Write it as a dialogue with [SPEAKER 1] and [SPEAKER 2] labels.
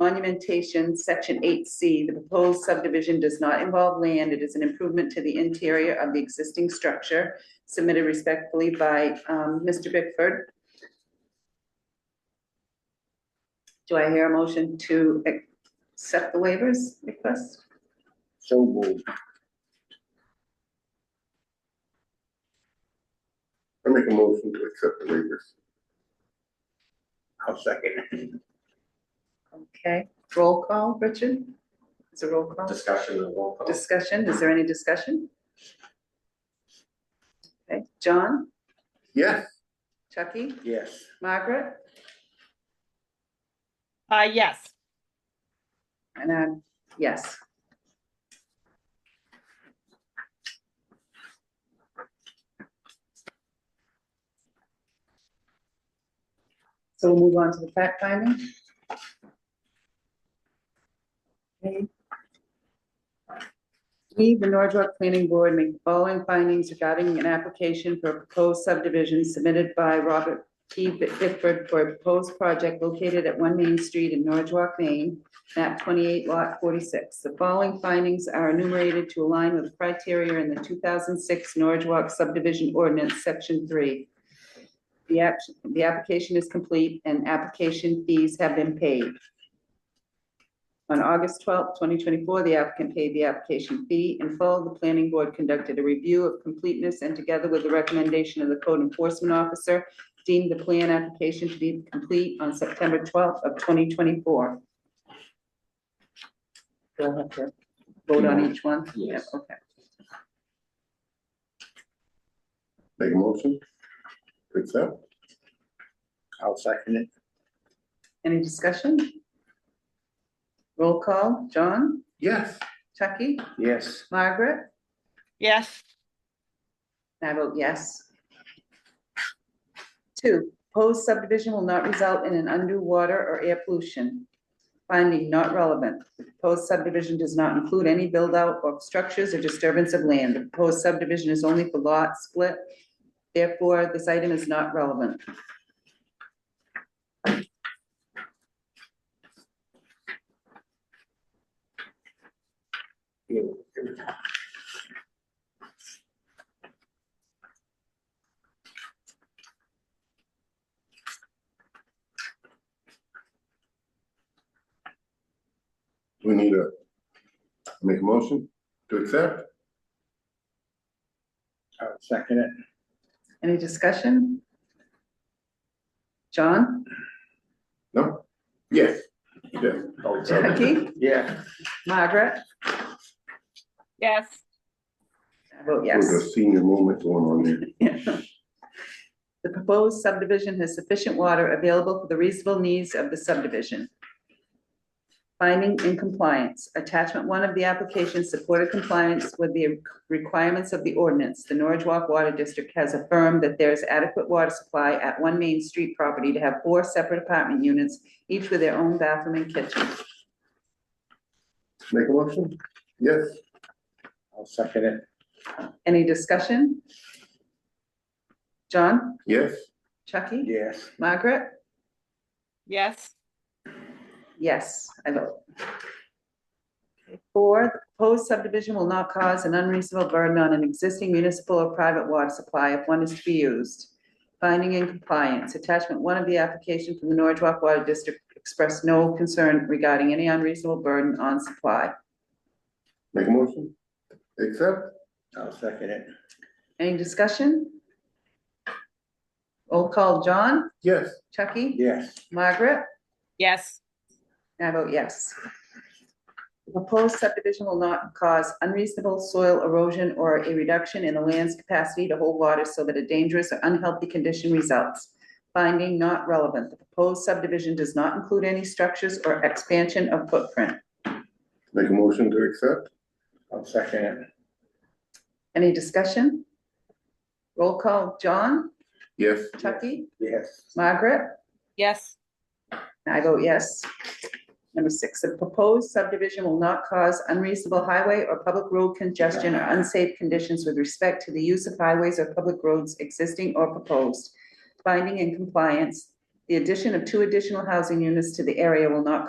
[SPEAKER 1] Monumentation, section eight C, the proposed subdivision does not involve land, it is an improvement to the interior of the existing structure. Submitted respectfully by um Mr. Bickford. Do I hear a motion to accept the waivers request?
[SPEAKER 2] So moved.
[SPEAKER 3] I make a motion to accept the waivers.
[SPEAKER 2] I'll second.
[SPEAKER 1] Okay, roll call, Richard? It's a roll call.
[SPEAKER 2] Discussion and roll call.
[SPEAKER 1] Discussion, is there any discussion? Okay, John,
[SPEAKER 3] Yes,
[SPEAKER 1] Chucky,
[SPEAKER 2] Yes.
[SPEAKER 1] Margaret,
[SPEAKER 4] Uh, yes,
[SPEAKER 1] and I'm, yes. So we'll move on to the fact finding. Okay. We, the Norwood Planning Board, make the following findings regarding an application for a proposed subdivision submitted by Robert P. Bitford for a proposed project located at One Main Street in Norwood, Maine, map twenty-eight lot forty-six. The following findings are enumerated to align with criteria in the two thousand six Norwood subdivision ordinance, section three. The app, the application is complete and application fees have been paid. On August twelfth, twenty twenty-four, the applicant paid the application fee. In full, the planning board conducted a review of completeness and together with the recommendation of the code enforcement officer, deemed the plan application to be complete on September twelfth of twenty twenty-four. We'll have to vote on each one?
[SPEAKER 2] Yes.
[SPEAKER 1] Yep, Okay.
[SPEAKER 3] make a motion to accept.
[SPEAKER 2] I'll second it.
[SPEAKER 1] Any discussion? Roll call, John,
[SPEAKER 3] Yes,
[SPEAKER 1] Chucky,
[SPEAKER 2] Yes.
[SPEAKER 1] Margaret?
[SPEAKER 4] yes,
[SPEAKER 1] And I vote yes. Two, proposed subdivision will not result in an undue water or air pollution. Finding not relevant. The proposed subdivision does not include any build-out of structures or disturbance of land. The proposed subdivision is only for lot split. Therefore, this item is not relevant.
[SPEAKER 3] we need a, make a motion to accept.
[SPEAKER 2] I'll second it.
[SPEAKER 1] Any discussion? John,
[SPEAKER 3] No? Yes, yes.
[SPEAKER 2] Oh, sorry.
[SPEAKER 1] Jackie,
[SPEAKER 2] Yeah.
[SPEAKER 1] Margaret?
[SPEAKER 4] yes,
[SPEAKER 1] I vote yes.
[SPEAKER 3] There's a senior moment going on there.
[SPEAKER 1] The proposed subdivision has sufficient water available for the reasonable needs of the subdivision. Finding in compliance, attachment one of the application supported compliance with the requirements of the ordinance. The Norwich Walk Water District has affirmed that there is adequate water supply at One Main Street property to have four separate apartment units, each with their own bathroom and kitchen.
[SPEAKER 3] Make a motion? Yes,
[SPEAKER 2] I'll second it.
[SPEAKER 1] Any discussion? John,
[SPEAKER 3] yes,
[SPEAKER 1] Chucky,
[SPEAKER 2] Yes.
[SPEAKER 1] Margaret?
[SPEAKER 4] yes,
[SPEAKER 1] Yes, I vote. Four, the proposed subdivision will not cause an unreasonable burden on an existing municipal or private water supply if one is to be used. Finding in compliance, attachment one of the application from the Norwich Walk Water District expressed no concern regarding any unreasonable burden on supply.
[SPEAKER 3] make a motion. Accept,
[SPEAKER 2] I'll second it.
[SPEAKER 1] Any discussion? Roll call, John,
[SPEAKER 3] yes,
[SPEAKER 1] Chucky,
[SPEAKER 2] Yes.
[SPEAKER 1] Margaret?
[SPEAKER 4] yes,
[SPEAKER 1] And I vote yes. The Proposed subdivision will not cause unreasonable soil erosion or a reduction in the land's capacity to hold water so that a dangerous or unhealthy condition results. Finding not relevant, the proposed subdivision does not include any structures or expansion of footprint.
[SPEAKER 3] make a motion to accept.
[SPEAKER 2] I'll second it.
[SPEAKER 1] Any discussion? Roll call, John,
[SPEAKER 3] Yes,
[SPEAKER 1] Chucky,
[SPEAKER 2] Yes.
[SPEAKER 1] Margaret?
[SPEAKER 4] yes,
[SPEAKER 1] I vote yes. Number six, the proposed subdivision will not cause unreasonable highway or public road congestion or unsafe conditions with respect to the use of highways or public roads existing or proposed. Finding in compliance, the addition of two additional housing units to the area will not